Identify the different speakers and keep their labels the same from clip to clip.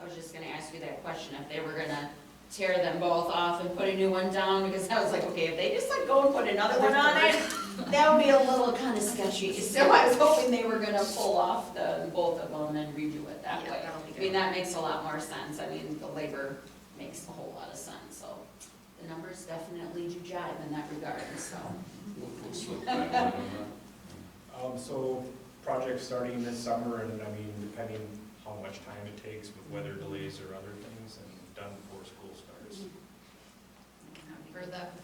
Speaker 1: I was just gonna ask you that question, if they were gonna tear them both off and put a new one down, because I was like, okay, if they just like go and put another one on it, that would be a little kinda sketchy, so I was hoping they were gonna pull off the, both of them and redo it that
Speaker 2: Yeah,
Speaker 1: way.
Speaker 2: that'll be
Speaker 1: I mean,
Speaker 2: good.
Speaker 1: that makes a lot more sense, I mean, the labor makes a whole lot of sense, so the numbers definitely do jive in that regard, so.
Speaker 3: We'll- we'll slip that one over.
Speaker 4: Um, so, project starting this summer, and I mean, depending how much time it takes with weather delays or other things, and done before school starts.
Speaker 2: I've Heard that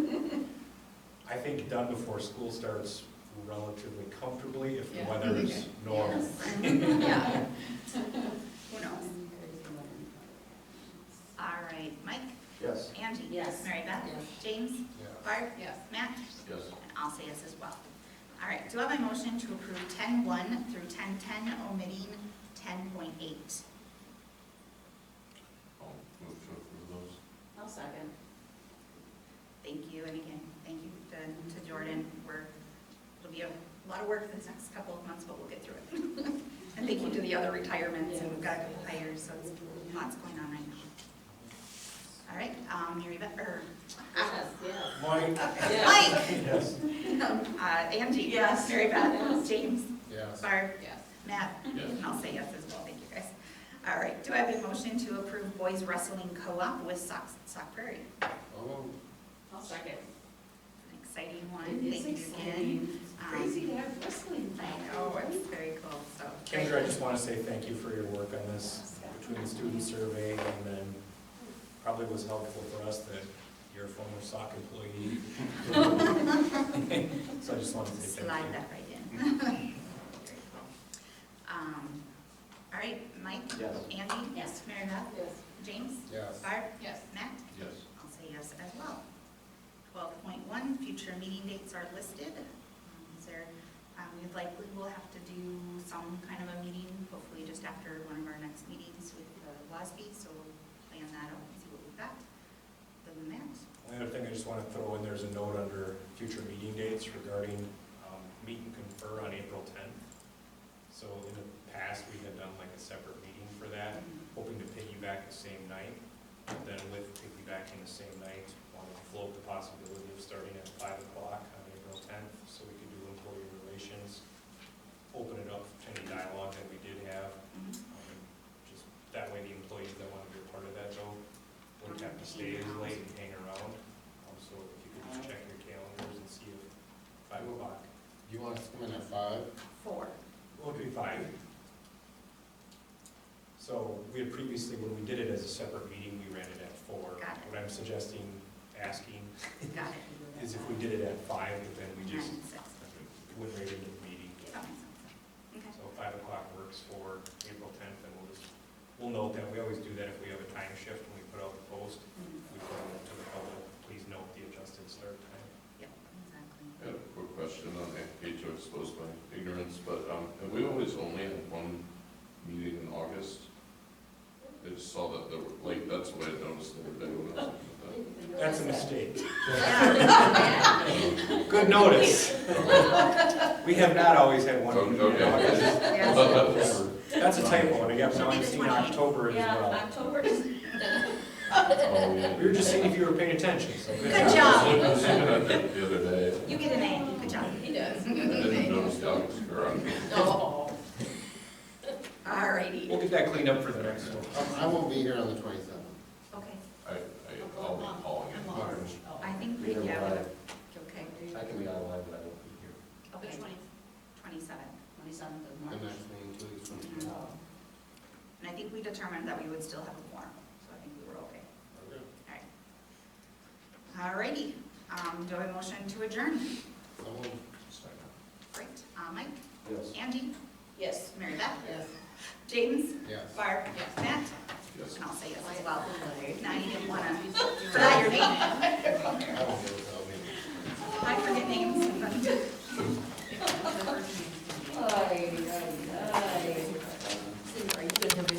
Speaker 2: before.
Speaker 4: I think done before school starts relatively comfortably if the
Speaker 2: Yeah.
Speaker 4: weather is normal.
Speaker 2: Yeah. Who knows?
Speaker 5: All right, Mike,
Speaker 4: Yes.
Speaker 5: Angie.
Speaker 1: Yes.
Speaker 5: Mary Beth.
Speaker 1: Yes.
Speaker 5: James. Barb.
Speaker 2: Yes.
Speaker 5: Matt.
Speaker 3: Yes.
Speaker 5: And I'll say yes as well. All right, do I have a motion to approve ten one through ten ten, omitting ten point eight?
Speaker 3: I'll move to approve those.
Speaker 1: I'll second.
Speaker 5: Thank you, and again, thank you to- to Jordan. We're, it'll be a lot of work this next couple of months, but we'll get through it. And thank you to the other retirements, and we've got a couple hires, so it's lots going on right now. All right, um, Mary Beth, or,
Speaker 1: Yes, yes.
Speaker 4: Mike?
Speaker 5: Mike,
Speaker 4: Yes.
Speaker 5: um, uh, Angie.
Speaker 1: Yes.
Speaker 5: Mary Beth, James,
Speaker 4: Yes.
Speaker 5: Barb,
Speaker 1: Yes.
Speaker 5: Matt,
Speaker 3: Yes.
Speaker 5: and I'll say yes as well, thank you guys. All right, do I have a motion to approve boys wrestling co-op with Sox, Sock Prairie?
Speaker 3: Oh,
Speaker 1: I'll second.
Speaker 5: An exciting one, thank you again. Um,
Speaker 1: Crazy to have wrestling.
Speaker 5: I know, Oh, it's very cool, so.
Speaker 4: Kendra, I just want to say thank you for your work on this, between the student survey and then probably was helpful for us that you're a former SOC employee. So I just wanted to say
Speaker 5: Slide
Speaker 4: thank you.
Speaker 5: that right in.
Speaker 4: Mm-hmm.
Speaker 5: Very cool. Um, All right, Mike?
Speaker 4: Yes.
Speaker 5: Andy?
Speaker 1: Yes.
Speaker 5: Mary Beth?
Speaker 1: Yes.
Speaker 5: James?
Speaker 4: Yes.
Speaker 5: Barb?
Speaker 2: Yes.
Speaker 5: Matt?
Speaker 3: yes.
Speaker 5: I'll say yes as well. Twelve point one, future meeting dates are listed. Um, Is there, um, we likely will have to do some kind of a meeting, hopefully just after one of our next meetings with the WASB, so we'll plan that out and see what we've got. Other than that,
Speaker 4: The other thing I just want to throw in, there's a note under future meeting dates regarding um, meet and confer on April 10th. So in the past, we had done like a separate meeting for that,
Speaker 5: mm-hmm.
Speaker 4: hoping to piggyback the same night. But Then with piggybacking the same night, want to float the possibility of starting at 5 o'clock on April 10th, so we could do employee relations, open it up to any dialogue that we did have.
Speaker 5: Mhm.
Speaker 4: Um, Just that way, the employees that want to be a part of that though, wouldn't have to stay as late and hang around. Um, So if you could just check your calendars and see if five o'clock,
Speaker 6: You want us to come in at five?
Speaker 5: four.
Speaker 4: well, it'd be five. So we had previously, when we did it as a separate meeting, we ran it at four.
Speaker 5: Got it.
Speaker 4: What I'm suggesting, asking,
Speaker 5: Got it.
Speaker 4: is if we did it at five, but then we
Speaker 5: Nine
Speaker 4: just
Speaker 5: and six.
Speaker 4: went right into the meeting.
Speaker 5: That makes sense. Okay.
Speaker 4: So five o'clock works for April tenth, and we'll just, we'll note that, we always do that if we have a time shift when we put out the post. We put it out to the public, please note the adjusted start time.
Speaker 5: Yep, exactly.
Speaker 3: I had a quick question, and I hate to expose my ignorance, but um, have we always only had one meeting in August? I just saw that, there were- like, that's the way I noticed the other day when I was looking
Speaker 4: That's a mistake.
Speaker 1: Yeah.
Speaker 4: Good notice. We have not always had one meeting in
Speaker 3: Okay.
Speaker 4: August.
Speaker 5: Yes.
Speaker 4: That's a typo, and I got now I'm
Speaker 5: Maybe the
Speaker 4: seeing
Speaker 5: 28th.
Speaker 4: October as well.
Speaker 1: October is.
Speaker 3: at that. Oh, yeah.
Speaker 4: We were just seeing if you were paying attention, so.
Speaker 5: Good
Speaker 3: I
Speaker 5: job.
Speaker 3: was looking at that The other day,
Speaker 5: You get an A, good job.
Speaker 1: He does.
Speaker 3: I didn't notice the August, or I'm
Speaker 1: Oh.
Speaker 5: All righty.
Speaker 4: We'll get that cleaned up for the next one.
Speaker 6: Um, I won't be here on the twenty-seventh.
Speaker 5: Okay,
Speaker 3: I, I, I'll be calling it.
Speaker 1: Oh,
Speaker 5: I think, we-
Speaker 6: Either
Speaker 5: yeah,
Speaker 6: way.
Speaker 5: we- okay,
Speaker 6: I can be online, but I won't be here.
Speaker 1: The
Speaker 5: okay, twenty-seven.
Speaker 1: twenty-seventh of
Speaker 6: The
Speaker 1: March.
Speaker 6: next meeting, two weeks from
Speaker 5: Mhm.
Speaker 6: now.
Speaker 5: And I think we determined that we would still have a quorum, so I think we were okay. All righty, um, do I have a motion to adjourn?
Speaker 6: Someone,
Speaker 5: Great, uh, Mike,
Speaker 6: yes,
Speaker 5: Angie,
Speaker 1: Yes.
Speaker 5: Mary Beth,
Speaker 1: Yes.
Speaker 5: James,
Speaker 6: yes.
Speaker 5: Barb,
Speaker 1: Yes.
Speaker 5: Matt,
Speaker 3: Yes.
Speaker 5: and I'll say yes as well. Now you didn't wanna forget your name,
Speaker 6: I won't be able to, I'll be-
Speaker 5: I forget names.